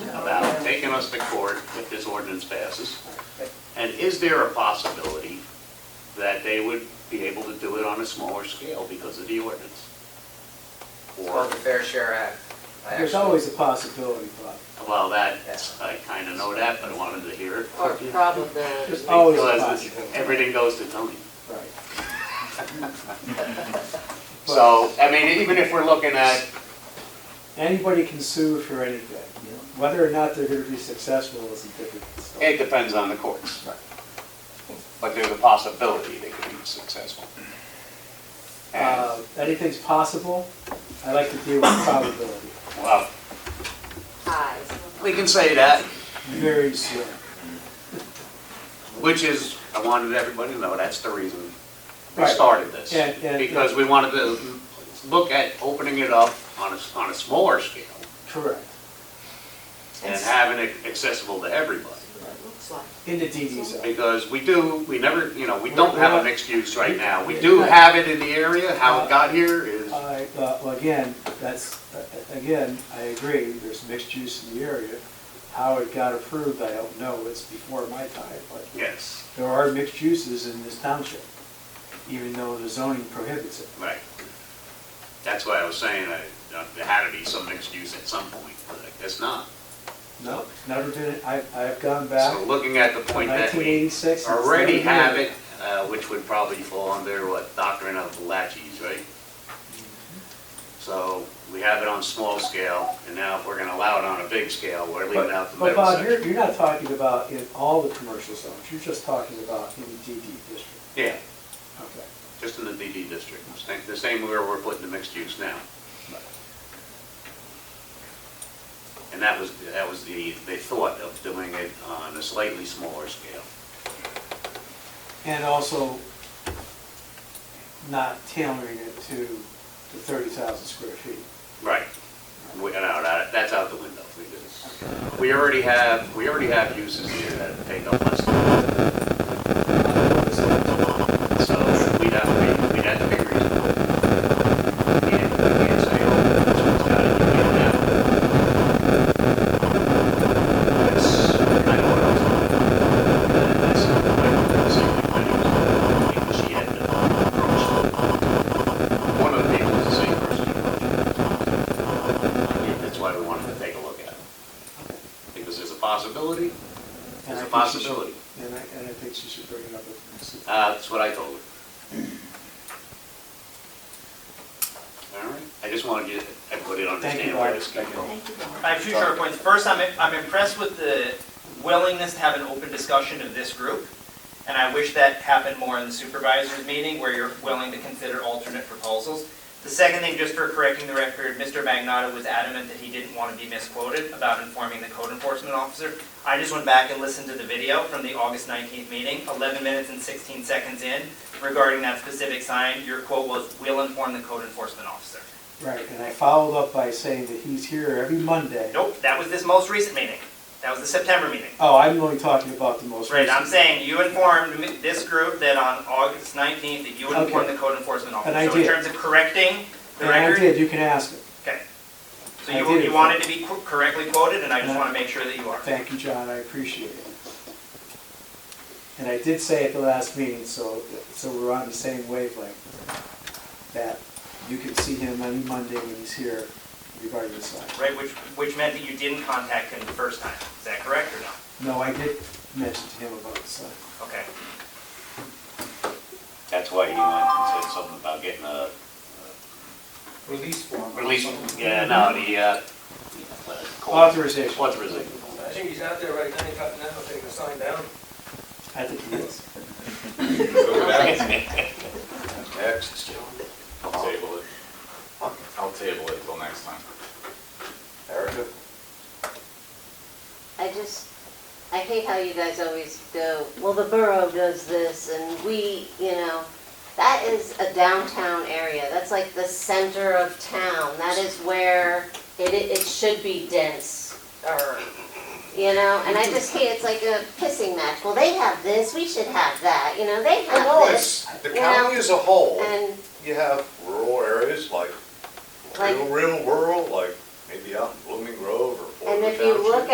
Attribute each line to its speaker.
Speaker 1: taking us to court if this ordinance passes? And is there a possibility that they would be able to do it on a smaller scale because of the ordinance?
Speaker 2: It's
Speaker 1: Or,
Speaker 2: called the Fair Share Act. I
Speaker 3: There's
Speaker 2: actually-
Speaker 3: always a possibility, Bob.
Speaker 1: well, that, I kind of know that, but I wanted to hear it.
Speaker 4: Or probability.
Speaker 3: There's always a
Speaker 1: Because
Speaker 3: possibility.
Speaker 1: everything goes to Tony.
Speaker 3: Right.
Speaker 1: So, I mean, even if we're looking at,
Speaker 3: Anybody can sue for anything. you know. Whether or not they're going to be successful is a different
Speaker 1: it
Speaker 3: story.
Speaker 1: depends on the courts. But there's a possibility they could be successful. And,
Speaker 3: Uh, Anything's possible. I like to deal with probability.
Speaker 1: well,
Speaker 4: Eyes.
Speaker 1: we can say that.
Speaker 3: Very slim.
Speaker 1: Which is, I wanted everybody to know, that's the reason we
Speaker 3: Right.
Speaker 1: started this.
Speaker 3: Yeah, yeah, yeah.
Speaker 1: Because we wanted to look at opening it up on a, on a smaller scale
Speaker 3: Correct.
Speaker 1: and having it accessible to everybody.
Speaker 4: Looks like.
Speaker 3: In the DD zone.
Speaker 1: Because we do, we never, you know, we don't have a mixed use right now. We do
Speaker 3: Right.
Speaker 1: have it in the area, how it got here is,
Speaker 3: I, uh, well, again, that's, uh, again, I agree, there's mixed use in the area. How it got approved, I don't know. It's before my time, but
Speaker 1: yes,
Speaker 3: there are mixed uses in this township, even though the zoning prohibits it.
Speaker 1: right. That's why I was saying, I- uh, there had to be some mixed use at some point, but I guess not.
Speaker 3: No, never been, I, I've gone back
Speaker 1: So looking at the point that we
Speaker 3: 1986.
Speaker 1: already have it, uh, which would probably fall under what doctrine of laches, right? So we have it on small scale, and now if we're gonna allow it on a big scale, we're leaving out the
Speaker 3: But
Speaker 1: middle
Speaker 3: Bob, you're,
Speaker 1: section.
Speaker 3: you're not talking about in all the commercial zones, you're just talking about in the DD district.
Speaker 1: Yeah,
Speaker 3: Okay.
Speaker 1: just in the DD district, It's like the same where we're putting the mixed use now. And that was, that was the, they thought of doing it on a slightly smaller scale.
Speaker 3: And also not tailoring it to the 30,000 square feet.
Speaker 1: Right. We, no, that, that's out the window. We just- We already have, we already have uses here that take up less than. So we'd have to be, we'd have to be reasonable. And we can't say, oh, this one's got it, we don't have it. That's kind of what I was on. That's not what I wanted to say. I didn't want to make she had to approach. One of the people is the same person who approached her. Yeah, That's why we wanted to take a look at it. Because there's a possibility,
Speaker 3: And
Speaker 1: there's a
Speaker 3: I think she should-
Speaker 1: possibility.
Speaker 3: And I, and I think she should bring it up with the city.
Speaker 1: Uh, That's what I told her. All right, I just wanted you, everybody to understand where this came from.
Speaker 4: Thank you, Bob.
Speaker 5: I have two short points. First, I'm, I'm impressed with the willingness to have an open discussion of this group. And I wish that happened more in the supervisors meeting where you're willing to consider alternate proposals. The second thing, just for correcting the record, Mr. Magnotta was adamant that he didn't want to be misquoted about informing the code enforcement officer. I just went back and listened to the video from the August 19th meeting, 11 minutes and 16 seconds in, regarding that specific sign. Your quote was, "We'll inform the code enforcement officer."
Speaker 3: Right, and I followed up by saying that he's here every Monday.
Speaker 5: Nope, that was this most recent meeting. That was the September meeting.
Speaker 3: Oh, I'm only talking about the most
Speaker 5: Right,
Speaker 3: recent.
Speaker 5: I'm saying you informed me- this group that on August 19th, that you would inform
Speaker 3: Okay.
Speaker 5: the code enforcement officer.
Speaker 3: And I did.
Speaker 5: So in terms of correcting the
Speaker 3: And I
Speaker 5: record,
Speaker 3: did, you can ask him.
Speaker 5: okay. So
Speaker 3: I
Speaker 5: you,
Speaker 3: did
Speaker 5: you wanted to be co- correctly quoted, and I just
Speaker 3: And I-
Speaker 5: want to make sure that you are.
Speaker 3: Thank you, John, I appreciate it. And I did say at the last meeting, so, so we're on the same wavelength, that you can see him any Monday when he's here regarding the sign.
Speaker 5: Right, which, which meant that you didn't contact him the first time. Is that correct or no?
Speaker 3: No, I did mention to him about the sign.
Speaker 5: Okay.
Speaker 1: That's why he went and said something about getting a
Speaker 6: release form.
Speaker 1: release, yeah, no, the, uh, uh,
Speaker 3: Authorization,
Speaker 1: authorization.
Speaker 6: I think he's out there right now, he's got now, taking a sign down.
Speaker 3: I think he is.
Speaker 7: Next. I'll table it. I'll table it till next time.
Speaker 6: Erica.
Speaker 8: I just, I hate how you guys always go, well, the borough does this and we, you know. That is a downtown area. That's like the center of town. That is where it, it should be dense or, you know, and I just hate, it's like a pissing match. Well, they have this, we should have that, you know, they have
Speaker 9: No,
Speaker 8: this.
Speaker 9: it's, the county as a whole,
Speaker 8: And
Speaker 9: you have rural areas like,
Speaker 8: Like-
Speaker 9: real, real rural, like maybe out in Blooming Grove or
Speaker 8: And
Speaker 9: Florida
Speaker 8: if you
Speaker 9: Township.
Speaker 8: look